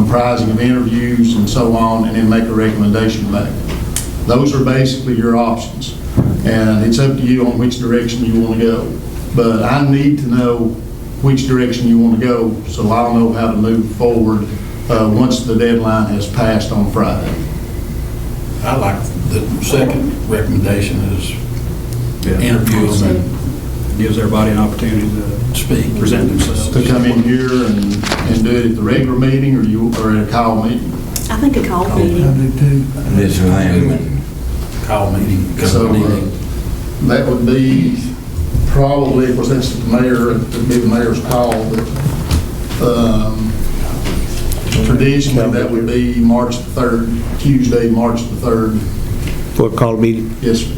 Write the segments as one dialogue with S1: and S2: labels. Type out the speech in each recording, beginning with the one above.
S1: comprising of interviews and so on, and then make a recommendation back. Those are basically your options, and it's up to you on which direction you want to go. But I need to know which direction you want to go, so I'll know how to move forward uh, once the deadline has passed on Friday.
S2: I like the second recommendation is interview
S3: Interviews
S2: them
S3: and gives everybody an opportunity to
S2: and speak.
S3: present themselves.
S1: To come in here and, and do it at the regular meeting, or you, or at a call meeting.
S4: I think a call meeting.
S5: This Langman,
S2: Call meeting.
S1: So,
S2: company.
S1: uh, That would be probably, of course, that's the mayor, it'd be the mayor's call, but um, traditionally, that would be March the 3rd, Tuesday, March the 3rd.
S6: for a call meeting.
S1: Yes, sir.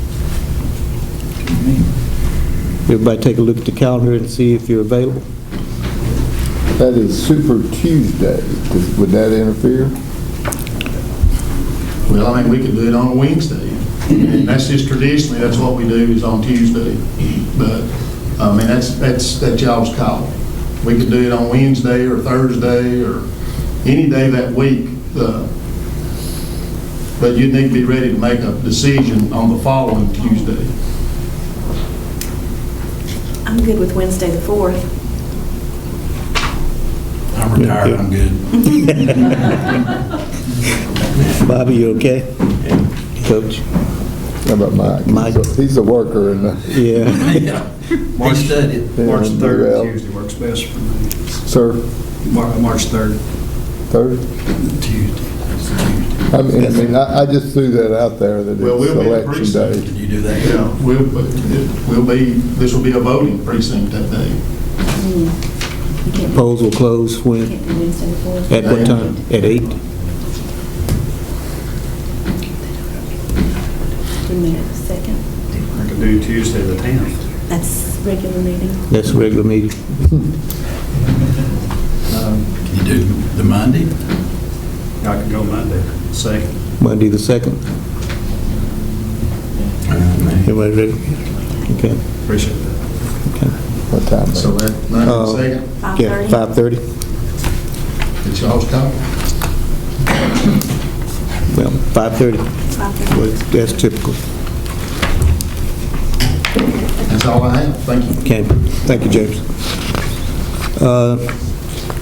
S6: Everybody take a look at the calendar and see if you're available.
S7: That is Super Tuesday. Does- Would that interfere?
S1: well, I mean, we could do it on a Wednesday. And that's just traditionally, that's what we do, is on Tuesday. But, I mean, that's, that's, that's y'all's call. We could do it on Wednesday or Thursday or any day that week. uh, But you'd need to be ready to make a decision on the following Tuesday.
S4: I'm good with Wednesday, the 4th.
S2: I'm retired, I'm good.
S6: Bobby, you okay? Coach?
S7: How about Mike?
S6: Mike.
S7: He's a worker and uh,
S6: Yeah.
S3: March
S2: He studied.
S3: March
S7: Yeah,
S3: 3rd
S7: well.
S3: Tuesday works best for me.
S7: Sir,
S3: Mar- March 3rd.
S7: third?
S2: Tuesday. It's a Tuesday.
S7: I mean, I mean, I I just threw that out there that
S1: Well, we'll be in
S7: it's election
S1: precinct.
S7: day.
S2: Did you do that?
S1: Yeah, we'll, we'll be, this will be a voting precinct that day.
S4: You can't
S6: Polls will close when,
S4: can't do Wednesday, the 4th.
S6: at what time? At eight?
S4: Give me a second.
S3: I could do Tuesday the 10th.
S4: That's regular meeting.
S6: That's a regular meeting.
S3: Um,
S2: Can you do the Monday?
S3: I could go Monday, second.
S6: Monday, the second. Everybody ready? Okay.
S3: Appreciate that.
S7: What time?
S1: So that, nine
S6: Oh.
S1: second,
S6: Yeah,
S4: 5:30?
S6: 5:30?
S1: it's y'all's call.
S6: Well, 5:30,
S4: 5:30.
S6: Well, that's typical.
S1: That's all I have. Thank you.
S6: Okay, thank you, James. Uh,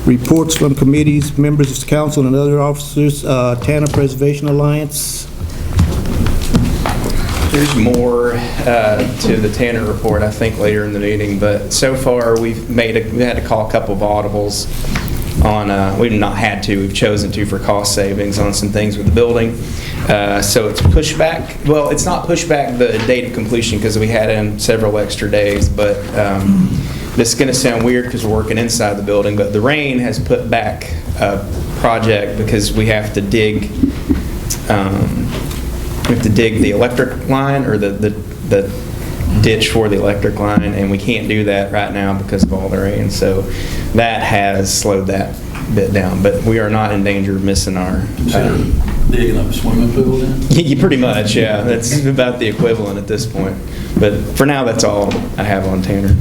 S6: Reports from committees, members of the council, and other officers, uh, Tanner Preservation Alliance.
S8: There's more uh, to the Tanner report, I think, later in the meeting, but so far, we've made, a- we had to call a couple of audibles on, uh, we've not had to, we've chosen to for cost savings on some things with the building. Uh, So it's pushback, well, it's not pushback the date of completion, because we had in several extra days, but um, this is going to sound weird because we're working inside the building, but the rain has put back a project because we have to dig um, we have to dig the electric line or the, the the ditch for the electric line, and we can't do that right now because of all the rain. So that has slowed that bit down, but we are not in danger of missing our.
S2: Consider
S8: um,
S2: digging up a swimming pool then?
S8: Yeah, pretty much, yeah. That's about the equivalent at this point. But for now, that's all I have on Tanner.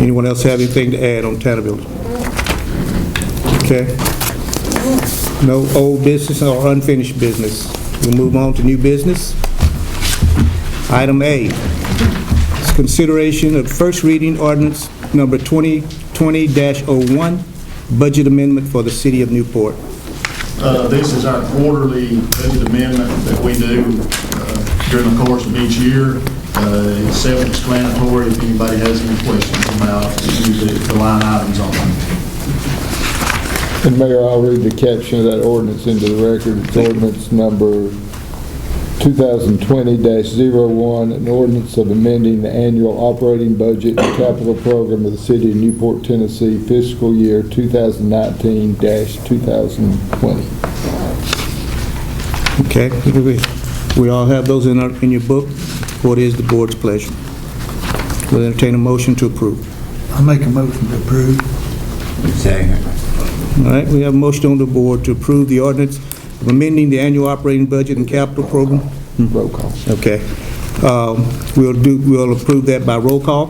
S6: Anyone else have anything to add on Tanner Building? Okay. No old business or unfinished business. We'll move on to new business. Item A, is consideration of first reading ordinance number 2020-01, budget amendment for the city of Newport.
S1: Uh, This is our quarterly budget amendment that we do uh, during the course of each year. Uh, It's self-explanatory if anybody has any questions about any of the- the line items on it.
S7: And Mayor, I'll read the caption of that ordinance into the record. It's ordinance number 2020-01, an ordinance of amending the annual operating budget and capital program of the city of Newport, Tennessee fiscal year 2019-2020.
S6: Okay? We- We all have those in our, in your book. What is the board's pleasure? We'll entertain a motion to approve.
S9: I make a motion to approve.
S5: second.
S6: All right, we have a motion on the board to approve the ordinance of amending the annual operating budget and capital program.
S7: Roll call.
S6: Okay. Um, We'll do, we'll approve that by roll call.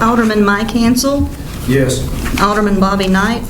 S10: Alderman Mike Hansel,
S3: Yes.
S10: Alderman Bobby Knight,